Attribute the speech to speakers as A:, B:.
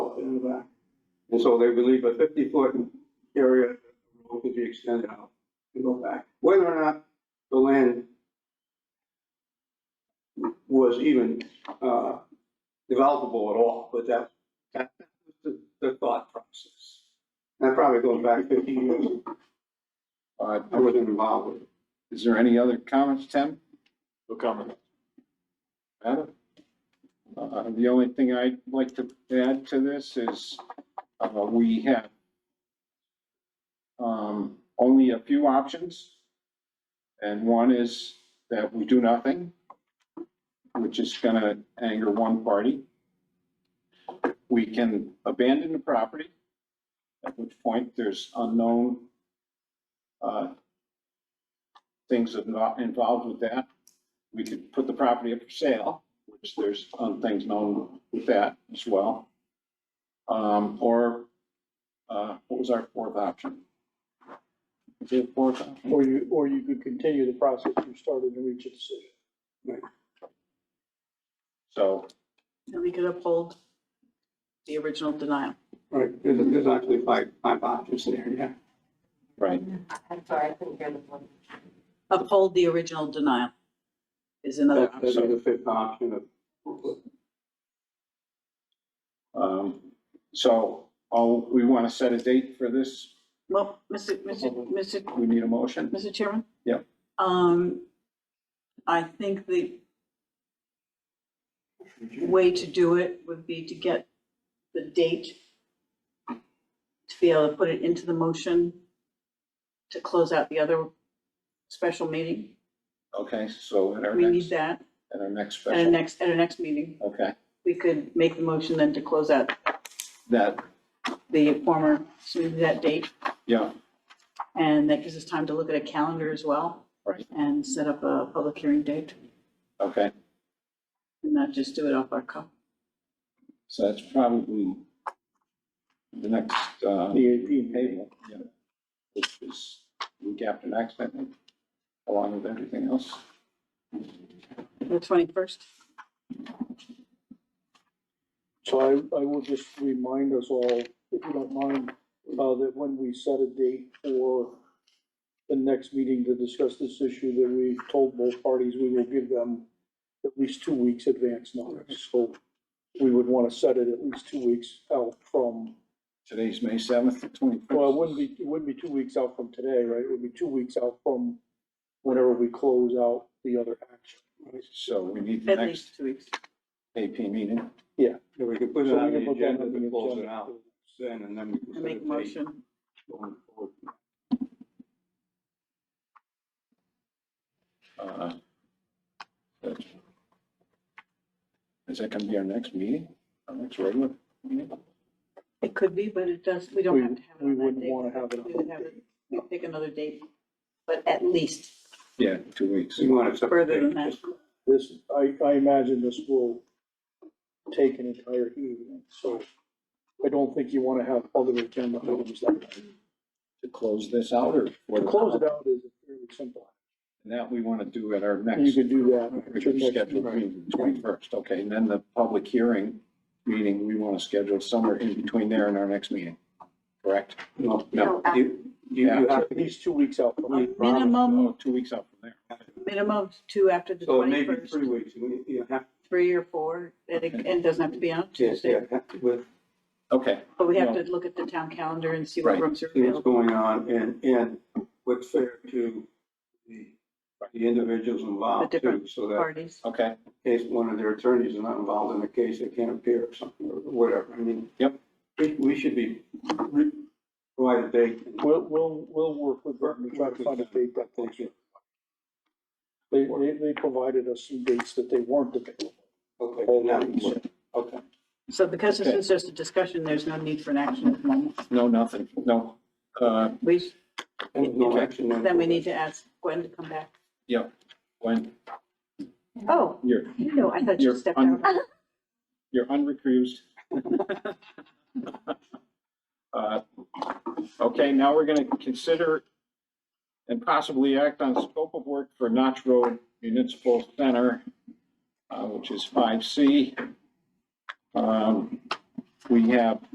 A: And so they believe a fifty foot area road could be extended out and go back, whether or not the land was even, uh, developable at all, but that, that was the, the thought process. And that probably goes back fifty years,
B: Uh,
A: I wasn't involved with it.
B: is there any other comments, Tim?
C: No comment.
B: Adam? Uh, the only thing I'd like to add to this is, uh, we have um, only a few options. And one is that we do nothing, which is gonna anger one party. We can abandon the property, at which point there's unknown, uh, things invo- involved with that we could put the property up for sale, which there's um, things known with that as well. Um, or, uh, what was our fourth option? Is there a fourth option?
D: Or you, or you could continue the process you started and reach a decision.
B: So,
E: And we could uphold the original denial.
A: Right, there's, there's actually five, five options there, yeah.
B: right,
F: I'm sorry, I couldn't hear the one.
E: Uphold the original denial is another
A: That,
E: option.
A: that'd be the fifth option of,
B: um, so, all, we want to set a date for this,
E: Well, Mr. Mr. Mr.
B: we need a motion?
E: Mr. Chairman?
B: Yep.
E: Um, I think the way to do it would be to get the date to be able to put it into the motion to close out the other special meeting.
B: Okay, so at our
E: We need
B: next,
E: that
B: at our next
E: at our
B: special,
E: next, at our next meeting.
B: okay,
E: We could make the motion then to close out
B: that,
E: the former, so we do that date.
B: yeah,
E: And that gives us time to look at a calendar as well.
B: Right.
E: And set up a public hearing date
B: okay,
E: and not just do it off our cuff.
B: so that's probably the next, uh.
D: EAP.
B: April, yeah, which is week after next, I think, along with everything else.
E: The twenty-first,
D: So I, I will just remind us all, if you don't mind, uh, that when we set a date for the next meeting to discuss this issue, that we told both parties, we will give them at least two weeks advance notice. So we would want to set it at least two weeks out from,
B: Today's May seventh, twenty-first.
D: well, it wouldn't be, it wouldn't be two weeks out from today, right? It would be two weeks out from whenever we close out the other action.
B: So we need the
E: at
B: next
E: least two weeks.
B: AP meeting.
A: if we could put it
D: So we
A: on
D: can
A: the
D: put that
A: agenda
D: on the
A: to close it
D: agenda.
A: out, then, and then we can.
E: I
A: set
E: make
A: a
E: a
A: date
E: motion.
A: going forward.
B: uh, that's- Is that gonna be our next meeting, our next regular meeting?
E: It could be, but it does, we
D: We-
E: don't have to have it
D: we
E: on that
D: wouldn't
E: date.
D: wanna have it on
E: We
D: that
E: would have it, we pick another date, but at least
B: Yeah, two weeks.
A: So you want to set the
E: further
A: date,
E: than that.
A: just
D: This, I, I imagine this will take an entire evening, so I don't think you wanna have other agenda items that night.
B: To close this out or?
D: To close it out is fairly simple.
B: That we wanna do at our
D: You
B: next.
D: could do that. at your next
B: Scheduled
D: meeting.
B: meeting, twenty-first, okay, and then the public hearing meeting, we wanna schedule somewhere in between there and our next meeting, correct?
A: No,
F: No,
A: no,
F: after.
A: you, you you have
D: At
A: to,
D: least two weeks out from
E: A
D: now.
B: Oh,
D: Um,
E: Minimum,
B: two weeks out from there.
E: minimum of two after the
A: so it may be
E: twenty-first,
A: three weeks, you you have
E: three or four, and it, and it doesn't have to be on
A: to, yeah,
E: Tuesday.
A: have to- with,
B: Okay,
E: But we have to look at the town calendar and see what
B: Right.
E: rooms are
A: see what's
E: available.
A: going on and, and what's fair to the, the individuals involved
E: The
A: too,
E: different
A: so that
E: Parties.
B: okay,
A: in case one of their attorneys is not involved in the case, they can't appear or something, or whatever, I mean.
B: Yep.
A: We, we should be, re- provide a date and
D: We'll, we'll, we'll work with them and try to find a date that works.
A: Okay.
D: They, they, they provided us some dates that they weren't available.
A: Okay,
D: All
A: now,
D: right, so-
A: okay.
E: So because this
B: Okay.
E: is just a discussion, there's no need for an action at the moment.
B: no, nothing, no, uh,
E: We,
A: No action then.
E: then we need to ask Gwen to come back.
B: Gwen,
E: Oh,
B: you're,
E: you know, I thought you
B: you're,
E: stepped
B: un-
E: out.
B: you're unrecused. Uh, Okay, now we're gonna consider and possibly act on scope of work for Notch Road Municipal Center, uh, which is five C. Um, We have